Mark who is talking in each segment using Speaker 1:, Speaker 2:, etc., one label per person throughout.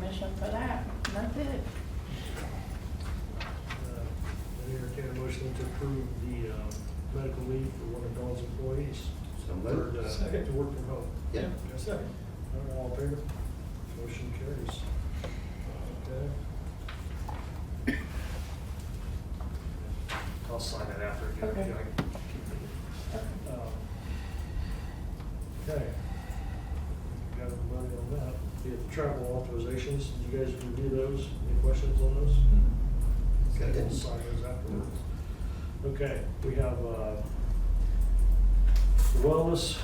Speaker 1: motion for that, and that's it.
Speaker 2: Uh, I entertain a motion to approve the um, medical leave for one of Dawn's employees.
Speaker 3: So
Speaker 2: for,
Speaker 3: moved.
Speaker 2: uh,
Speaker 4: Second.
Speaker 2: To work from home.
Speaker 3: Yeah.
Speaker 2: Yes, sir. All in favor? Motion carries. Okay. I'll sign that after. if you
Speaker 1: Okay.
Speaker 2: like. Um, Okay. Got everybody on that. The travel authorizations, did you guys review those? Any questions on those?
Speaker 3: Got
Speaker 2: Okay,
Speaker 3: it.
Speaker 2: we'll sign those afterwards. Okay, we have uh, the wellness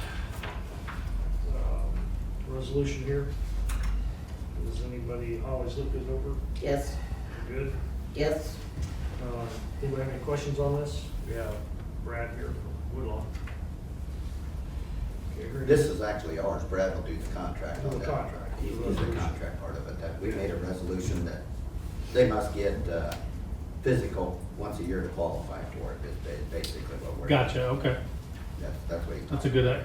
Speaker 2: um, resolution here. Does anybody, always look this over?
Speaker 3: Yes,
Speaker 2: Good?
Speaker 3: yes.
Speaker 2: Uh, Anybody have any questions on this? We have Brad here from Woodlawn. Okay, here it
Speaker 3: This is actually ours, Brad will do the contract
Speaker 2: Oh,
Speaker 3: on
Speaker 2: the
Speaker 3: that.
Speaker 2: contract.
Speaker 3: He will do the contract part of it, that we made a resolution that they must get, uh, physical once a year to qualify for it, is ba- basically what we're.
Speaker 4: Gotcha, okay.
Speaker 3: That's, that's what he.
Speaker 4: That's a good, i-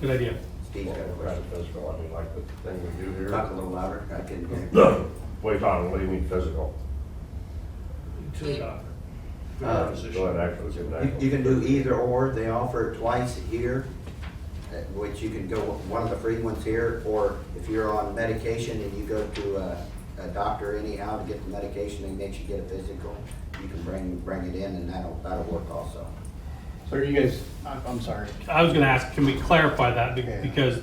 Speaker 4: good idea.
Speaker 3: Steve's got a
Speaker 5: Right,
Speaker 3: question.
Speaker 5: physical, I mean, like the thing we do here.
Speaker 3: Talk a little louder, I can hear.
Speaker 5: Wait, Tom, what do you mean physical?
Speaker 2: To the doctor. We
Speaker 3: Uh,
Speaker 2: have a physician.
Speaker 5: Go ahead, actually, give an
Speaker 3: You,
Speaker 5: actual.
Speaker 3: you can do either or, they offer it twice a year, uh, which you can go, one of the free ones here, or if you're on medication and you go to a, a doctor anyhow to get the medication, they make you get a physical, you can bring, bring it in and that'll, that'll work also.
Speaker 6: So are you guys, I'm, I'm sorry.
Speaker 4: I was gonna ask, can we clarify that? Be-
Speaker 6: Yeah.
Speaker 4: Because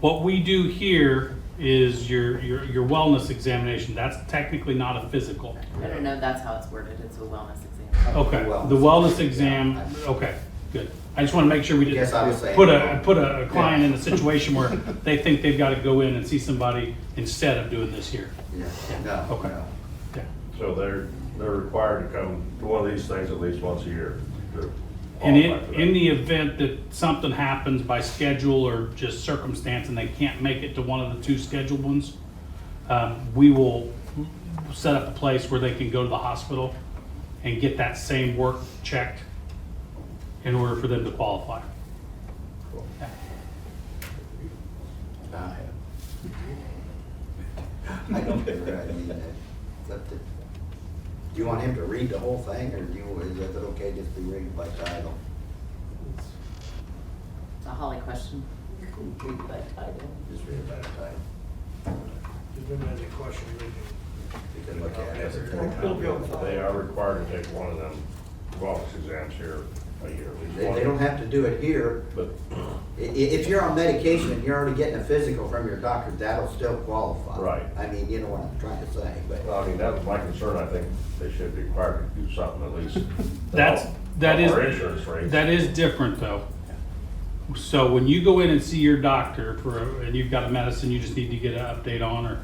Speaker 4: what we do here is your, your, your wellness examination, that's technically not a physical.
Speaker 7: I don't know if that's how it's worded, it's a wellness exam.
Speaker 4: Okay, the
Speaker 3: Wellness.
Speaker 4: wellness exam, okay, good. I just wanna make sure we didn't.
Speaker 3: Guess I was saying
Speaker 4: Put a,
Speaker 3: wrong.
Speaker 4: put a a client in a situation where they think they've gotta go in and see somebody instead of doing this here.
Speaker 3: Yeah, no,
Speaker 4: Okay.
Speaker 3: no.
Speaker 4: Yeah.
Speaker 5: So they're, they're required to come to one of these things at least once a year to
Speaker 4: And in,
Speaker 5: qualify for that.
Speaker 4: in the event that something happens by schedule or just circumstance and they can't make it to one of the two scheduled ones, um, we will set up a place where they can go to the hospital and get that same work checked in order for them to qualify.
Speaker 3: Uh, I don't think I need that. But the- Do you want him to read the whole thing, or do you, is it okay just be reading by title?
Speaker 7: It's a Holly question.
Speaker 3: By title? Just read it by title.
Speaker 2: If anybody has any questions, they can.
Speaker 3: You can look at it.
Speaker 2: It'll be on file.
Speaker 5: They are required to take one of them wellness exams here a year. at least
Speaker 3: They,
Speaker 5: one.
Speaker 3: they don't have to do it here.
Speaker 5: But,
Speaker 3: I- i- if you're on medication and you're already getting a physical from your doctor, that'll still qualify.
Speaker 5: Right.
Speaker 3: I mean, you know what I'm trying to say, but
Speaker 5: I mean, that was my concern, I think they should be required to do something at least. to
Speaker 4: That's,
Speaker 5: help-
Speaker 4: that
Speaker 5: help
Speaker 4: is.
Speaker 5: Our insurance rates.
Speaker 4: That is different though. So when you go in and see your doctor for, a- and you've got a medicine you just need to get an update on or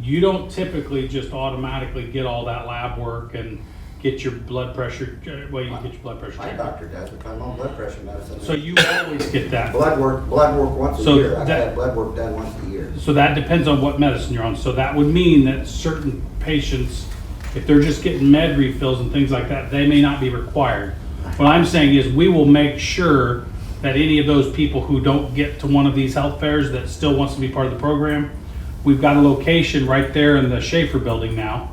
Speaker 4: you don't typically just automatically get all that lab work and get your blood pressure, well, you get your blood pressure
Speaker 3: my
Speaker 4: checked.
Speaker 3: doctor does, if I'm on blood pressure medicine.
Speaker 4: So you always get that.
Speaker 3: Blood work, blood work once a
Speaker 4: So
Speaker 3: year. I've
Speaker 4: that-
Speaker 3: had blood work done once a year.
Speaker 4: So that depends on what medicine you're on. So that would mean that certain patients, if they're just getting med refills and things like that, they may not be required. What I'm saying is we will make sure that any of those people who don't get to one of these health fairs that still wants to be part of the program, we've got a location right there in the Schaefer building now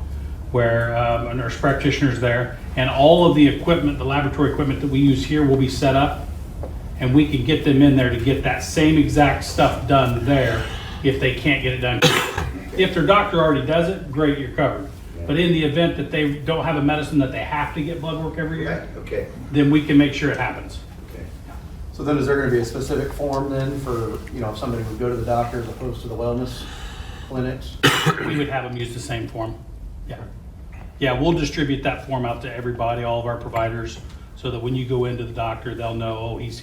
Speaker 4: where um, a nurse practitioner's there and all of the equipment, the laboratory equipment that we use here will be set up and we can get them in there to get that same exact stuff done there if they can't get it done. If their doctor already does it, great, you're covered. But in the event that they don't have a medicine that they have to get blood work every
Speaker 3: Right,
Speaker 4: year,
Speaker 3: okay,
Speaker 4: then we can make sure it happens.
Speaker 3: okay.
Speaker 6: So then is there gonna be a specific form then for, you know, if somebody would go to the doctor as opposed to the wellness clinics?
Speaker 4: We would have them use the same form. Yeah. Yeah, we'll distribute that form out to everybody, all of our providers, so that when you go into the doctor, they'll know, oh, he's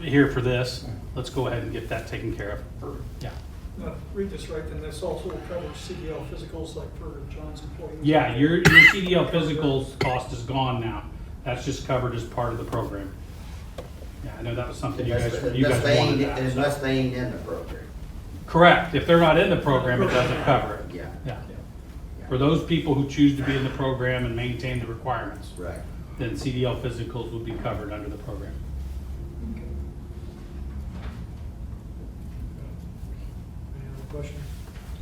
Speaker 4: here for this. Let's go ahead and get that taken care of. Yeah.
Speaker 8: Now, Uh, read this right, then this also covers CDL physicals like for John's employees.
Speaker 4: Yeah, your, your CDL physicals cost is gone now. That's just covered as part of the program. Yeah, I know that was something you
Speaker 3: Unless
Speaker 4: guys, you
Speaker 3: unless
Speaker 4: guys
Speaker 3: they
Speaker 4: wanted
Speaker 3: ain't,
Speaker 4: that. so-
Speaker 3: unless they ain't in the program,
Speaker 4: Correct, if they're not in the program, it doesn't cover it.
Speaker 3: yeah,
Speaker 4: Yeah. For those people who choose to be in the program and maintain the requirements,
Speaker 3: right.
Speaker 4: then CDL physicals would be covered under the program.
Speaker 2: Any other questions?